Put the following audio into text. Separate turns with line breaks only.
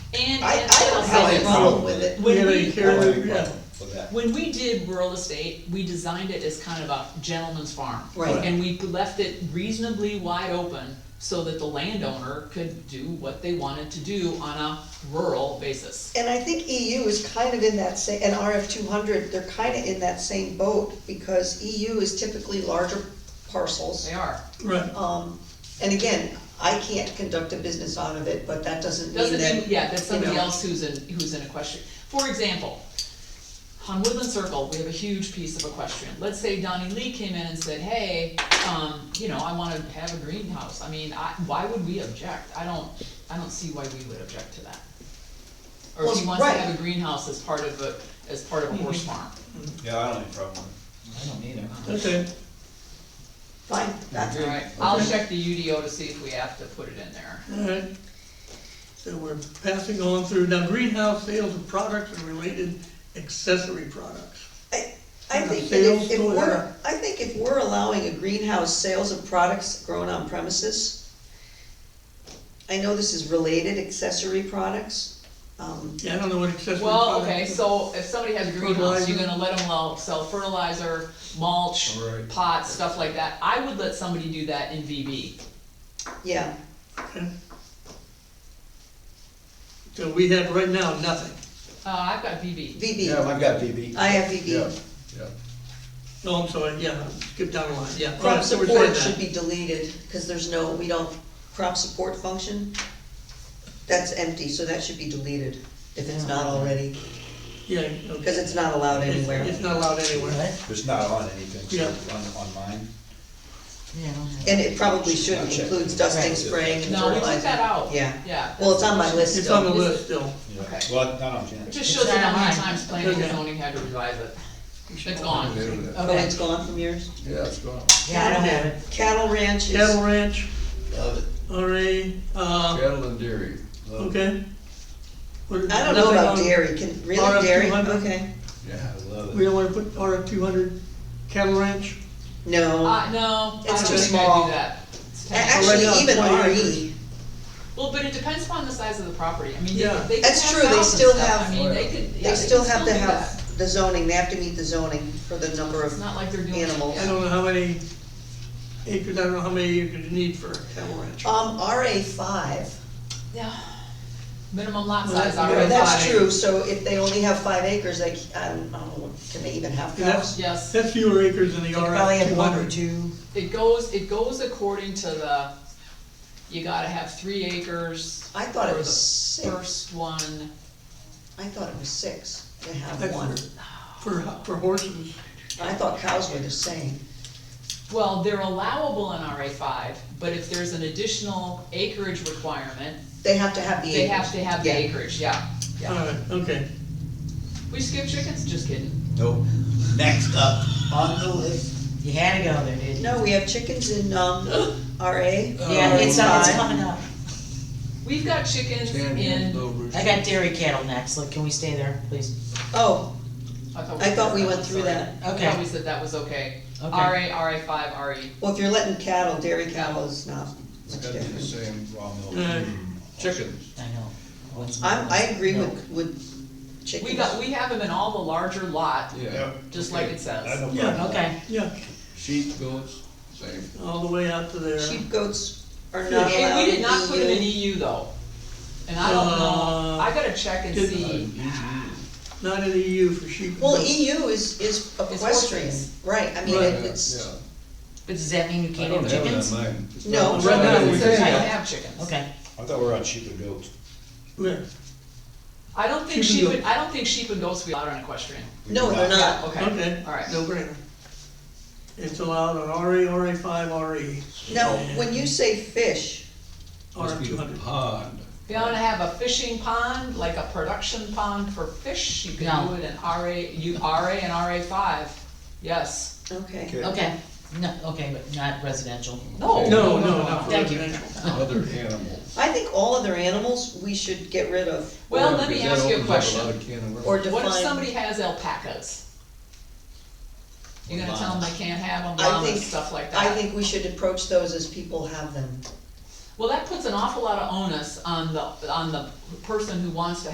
And.
I,
and
I don't
so-
have a problem with it.
When
Yeah,
we-
you
I don't
care,
have a
yeah.
problem with that.
When we did rural estate, we designed it as kind of a gentleman's farm.
Right.
And we left it reasonably wide open so that the landowner could do what they wanted to do on a rural basis.
And I think EU is kind of in that same, and RF two hundred, they're kind of in that same boat, because EU is typically larger parcels.
They are.
Right,
Um, and again, I can't conduct a business out of it, but that doesn't mean
Doesn't mean,
that.
yeah, that's somebody
you know.
else who's in, who's in equestrian. For example, on Woodland Circle, we have a huge piece of equestrian. Let's say Donnie Lee came in and said, hey, um, you know, I wanna have a greenhouse. I mean, I, why would we object? I don't, I don't see why we would object to that. Or if he
Well,
wants to
right. Mm-hmm.
have a greenhouse as part of a, as part of a horse farm.
Yeah, I don't have a problem with
I don't either.
okay.
Fine, that's,
Alright, I'll check the UDO to see if we have to put it in there.
Alright, so we're passing on through, now greenhouse sales of products and related accessory products.
I, I
Yeah,
think that if,
sales
if
to
we're,
whatever.
I think if we're allowing a greenhouse sales of products grown on premises, I know this is related accessory products, um,
Yeah, I don't know what accessory
Well,
products.
okay, so if somebody has a greenhouse, you're gonna let them sell fertilizer, mulch,
Right.
pots, stuff like that. I would let somebody do that in VB.
yeah,
okay. So we have right now, nothing,
Uh, I've got VB.
it.
VB,
Yeah, I've got BB.
I have VB.
Yeah, yeah.
no, I'm sorry, yeah, skip down the line, yeah.
Crop
alright, so we're
support
saying
should
that.
be deleted, cause there's no, we don't, crop support function, that's empty, so that should be deleted, if it's not already,
Yeah, okay.
cause it's not allowed
It's-
anywhere.
It's not allowed anywhere.
What?
It's not on anything, so
Yeah.
on, on mine.
Yeah, I don't have.
And it probably shouldn't
Not checked.
include dusting,
Right.
spraying, and
No, we took
fertilizing.
that out.
Yeah,
Yeah.
well, it's on my list
It's on the
still.
list still.
Yeah.
Okay.
Well, not on Jan.
It just shows you how many
It's not mine.
times planning and
Okay.
zoning had to revise it. It's gone.
Oh,
Okay.
it's gone from yours?
Yeah, it's gone.
Yeah, I don't have it.
Cattle ranches.
Cattle ranch,
Love it.
RA, uh,
Cattle and dairy.
Love it.
okay. What-
I don't know about
nothing on-
dairy, can, really,
RF
dairy,
200?
okay,
Yeah,
Yeah.
I love
We
it.
don't wanna put RF two hundred cattle ranch,
no.
Uh, no, I don't
It's too
think I'd
small.
do that. It's
A-
ten-
Actually,
now it's
even E.
20
RE,
acres.
Well, but it depends upon the size of the property. I mean, they
Yeah.
could, they could have
That's true, they
houses and
still
stuff.
have-
I mean, they could, yeah,
they still
could
have to
do that.
have the zoning, they have to meet the zoning for the number
It's
of
not like they're doing.
animals.
I don't know how many acres, I don't know how many acres you need for a cattle ranch.
Um, RA five,
Yeah. Minimum lot
Well,
size,
that's-
I
yeah,
would
that's
say.
true, so if they only have five acres, they, c- I don't know, can they even have cows?
That's,
Yes.
that's fewer acres than the
Probably
RF
have
two
one or
hundred.
two.
It goes, it goes according to the, you gotta have three acres.
I thought it
for
was
the
six,
First one,
I thought it was six to have
That's
one,
For, for horses,
I thought cows were the same.
well, they're allowable in RA five, but if there's an additional acreage requirement,
They have to have the acres.
they have to have the
Yeah.
acreage, yeah, yeah.
alright, okay.
We skip chickens, just kidding.
Nope. Next up on the list.
You had to go there, didn't you?
No, we have chickens in, um, RA.
Yeah, it's, uh, it's
Five.
coming up.
We've got chickens
Ten years,
in,
no rooster.
I got dairy cattle next, look, can we stay there, please?
Oh,
I thought we.
I thought we
said
went
was
through
alright.
that.
I thought
Okay.
we said that was okay.
Okay.
RA, RA five, E. RE.
Well, if you're letting cattle, dairy cattle is not
It's
much
gotta be the same
different.
raw milk.
Uh,
Yeah.
Chickens.
I know. What's-
I'm, I agree with, with
We
chickens.
got, we have them in all the larger lot,
Yeah.
just like it says.
I don't
Yeah.
know.
Okay,
Yeah,
Sheep, goats, same.
all the way out to there.
Sheep, goats are not allowed. E
And we did not put them in
EU.
EU though. And I don't know,
Uh,
I gotta check and
did-
see.
Not in the EU for sheep. and
Well, E
goats.
EU is, is equestrian,
horses.
right, I mean,
Right,
it-
yeah,
it's,
but does that mean you
yeah. I
can't
don't
have
have that
chickens?
mine. It's
No.
not-
Right now,
It
we
says
can't.
I can have chickens.
Okay,
I thought we were on sheep and goats.
Where?
I don't think
Sheep
sheep,
and
and-
goats.
I don't think sheep and goats would be allowed on equestrian.
no, they're
Yeah,
not.
okay,
Okay,
all right.
no brainer. It's allowed on RA, RA five, RE,
Now, when you say fish,
RF
Must be
two
the
hundred.
pond.
If you wanna have a fishing pond, like a production pond for fish, you can
No.
do it in RA, you, RA and RA five, yes.
okay,
Okay.
okay, no, okay, but not residential.
No,
No, no, not for
Thank you.
residential.
Other animals.
I think all other animals we should get rid of
Well,
Yeah,
let me
because
ask
that
you a
opens up lot
question.
of can of worms.
or
What if
define,
somebody has alpacas? You gonna tell them they can't have them,
I
llamas,
think-
stuff like that?
I think we should approach those as people have them.
Well, that puts an awful lot of onus on the, on the person who wants to